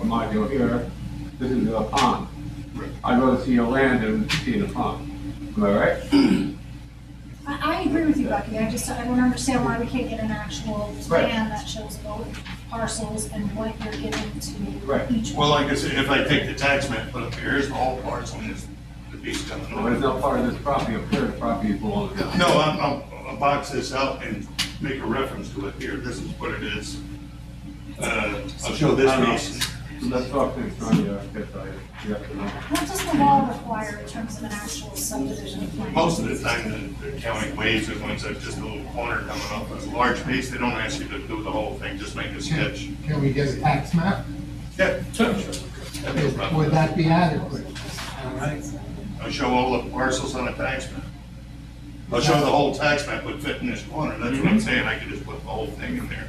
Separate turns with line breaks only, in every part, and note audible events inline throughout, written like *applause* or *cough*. module here, this is a pond. I'd rather see a land than seeing a pond. Am I right?
I, I agree with you, Bucky, I just, I don't understand why we can't get an actual
Right.
plan that shows both parcels and what you're giving
Right.
to each.
Well, like I said, if I take the tax map, put up here, here's the whole parcel, and here's the piece coming
But it's
over.
not part of this property, up here, the property belongs to.
No, I'm, I'm, I'll box this out and make a reference to it here, this is what it is. Uh, I'll show this piece.
So Let's talk uh, things from the architect, side. you have to know.
What does the law require in terms of an actual subdivision plan?
Most of the time, the the county waves it once it's just a little corner coming up, a large piece, they don't ask you to do the whole thing, just make a sketch.
Can can we get a tax map?
Yeah, sure, sure. That'd be a problem.
Would that be adequate?
All right. I'll show all the parcels on a tax map. I'll show the whole tax map would fit in this corner, that's
Mm-hmm.
what I'm saying, I could just put the whole thing in there.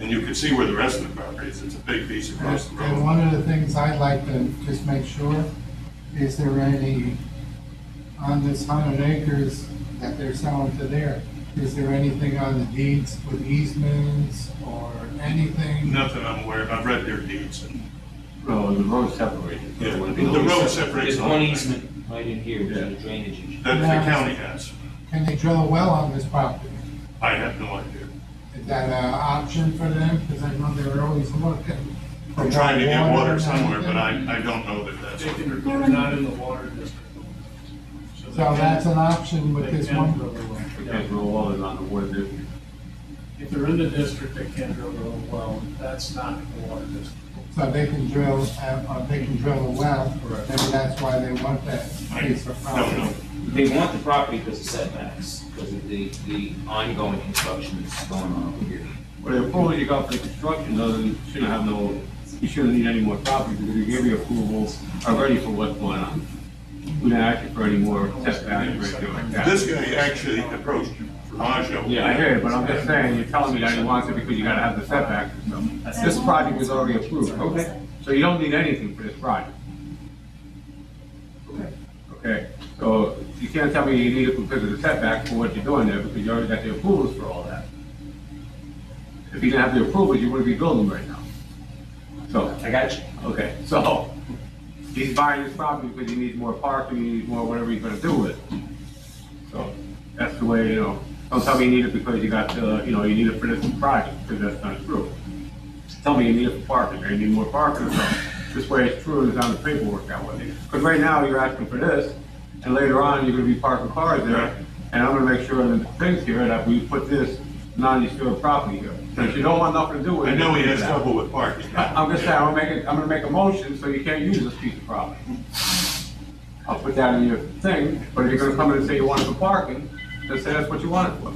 And you could see where the rest of the property is, it's a big piece across the
And
road.
one of the things I'd like to just make sure, is there any, on this hundred acres that they're selling to there, is there anything on the deeds with easements or anything?
Nothing I'm aware of, I've read their deeds and,
No, the road separated.
yeah, the road separates.
There's
all
one
of that.
easement right in here, which is a drainage issue.
That the county has,
Can they drill a well on this property?
I have no idea.
Is that an option for them? Because I know they're always looking. for
I'm trying to get water
and
somewhere, but I,
everything.
I don't know that that's what they're doing.
They're
They're
in-
not in the water district.
So that's an option with
They
this
can
one?
drill their well.
Because the wall is on the wood, there.
If they're in the district, they can drill their own well, that's not in the water district.
So they can drill, uh, uh, they can drill a well,
Correct.
maybe that's why they want that
I
piece of
don't know.
property.
They want the property because of setbacks, because of the, the ongoing construction that's going on over here.
Well, the approval you got for the construction doesn't, shouldn't have no, you shouldn't need any more property because you gave your approval already for what's going on. We didn't ask you for any more setback or anything like that.
This guy actually approached Rajah.
Yeah, I hear you, but I'm just saying, you're telling me that you want it because you gotta have the setback. This project was already approved, okay? So you don't need anything for this project. Okay, so you can't tell me you need it because of the setback for what you're doing there because you already got the approvals for all that. If you didn't have the approvals, you wouldn't be building right now. So,
I got you.
okay, so he's buying this property because he needs more parking, he needs more whatever he's gonna do with it. So that's the way, you know, don't tell me you need it because you got, uh, you know, you need it for this project, because that's not true. Tell me you need it for parking, or you need more parking or something. This way it's true, it's on the paperwork that way. Because right now you're asking for this, and later on you're gonna be parking cars
Right.
there. And I'm gonna make sure in the things here that we put this non-disturbed property here. Since you don't want nothing to do with it.
I know he has
Yeah.
trouble with parking.
*laughs*
I'm just saying, I'm gonna make, a- I'm gonna make a motion, so you can't use this piece of property. I'll put that in your thing, but if you're gonna come in and say you want it for parking, just say that's what you want it for.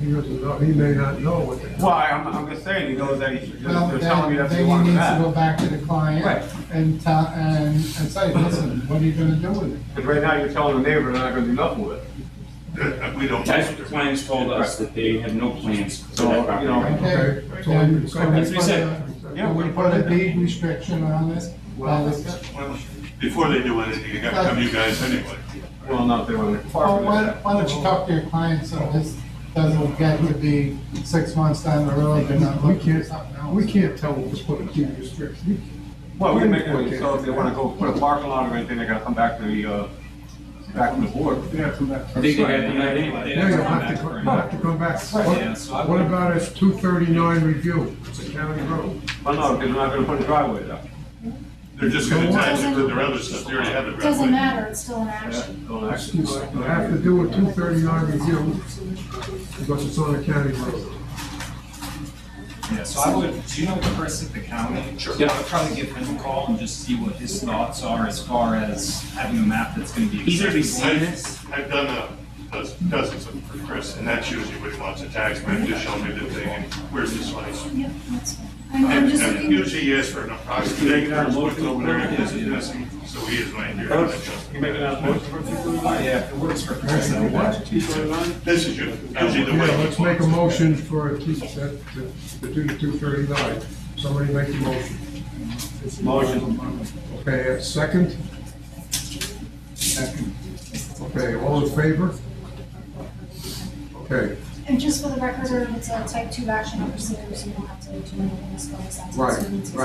He doesn't know, he may not know what they.
Why, I'm, I'm just saying, he knows that he should,
Well,
they're
then-
telling me that's what you
then he
want for
needs to go
that.
back to the
Right.
client and tell, and, and say, listen, what are you gonna do with it?
Because right now, you're telling the neighbor they're not gonna do nothing with it.
We don't.
That's what the plans told us, that they have no plans for that property.
So, you know,
Okay,
Okay.
then, so we
That's what he
put a,
said.
Yeah,
we
we-
put a deed restriction on this,
Well,
on this.
Well, Before they do anything, you gotta come to you guys anyway.
Well, not if they want to
Well,
park
why,
with
why don't you talk to your client so this doesn't get to be six months down the road, they're not
We
looking for
can't,
something else?
we can't tell them to put a deed restriction.
Well, we make it, so if they wanna go put a parking lot or anything, they gotta come back to the, uh, back to the board.
They have to come back.
I think they have tonight anyway. They
Yeah, you'll
come
have to,
back
go-
for
you'll have to come back.
Yeah, so I-
What what about this two thirty-nine review? It's a county road.
Well, no, because we're not gonna put a driveway there.
They're just gonna attach it to their other stuff, they already have it.
Doesn't matter, it's still an action.
Don't actually-
You have to do a two thirty-nine review because it's on a county road.
Yeah, so I would, do you know Chris at the county? Sure. Yeah, I'll probably give him a call and just see what his thoughts are as far as having a map that's gonna be.
He's already
accessible.
seen this.
I've I've done a, does- dozens of them for Chris, and that's usually what he wants, a tax man, just show me the thing, and where's this place?
Yep, that's fine. I'm, I'm
And
just
and
looking,
usually he asks for an approximate, there's what's over there, and this is missing, so he is right here. and I just-
Yeah, if it works for Chris, then what?
This is usually usually the
Yeah,
way. he
let's make a
wants it.
motion for, a two- that- to to do the two thirty-nine. Somebody make a motion.
Motion.
Okay, a second?
Second.
Okay, all in favor? Okay,
and just for the record, it's a type two action, obviously, so you don't have to do anything as far as that.
Right,
So you need to-
right.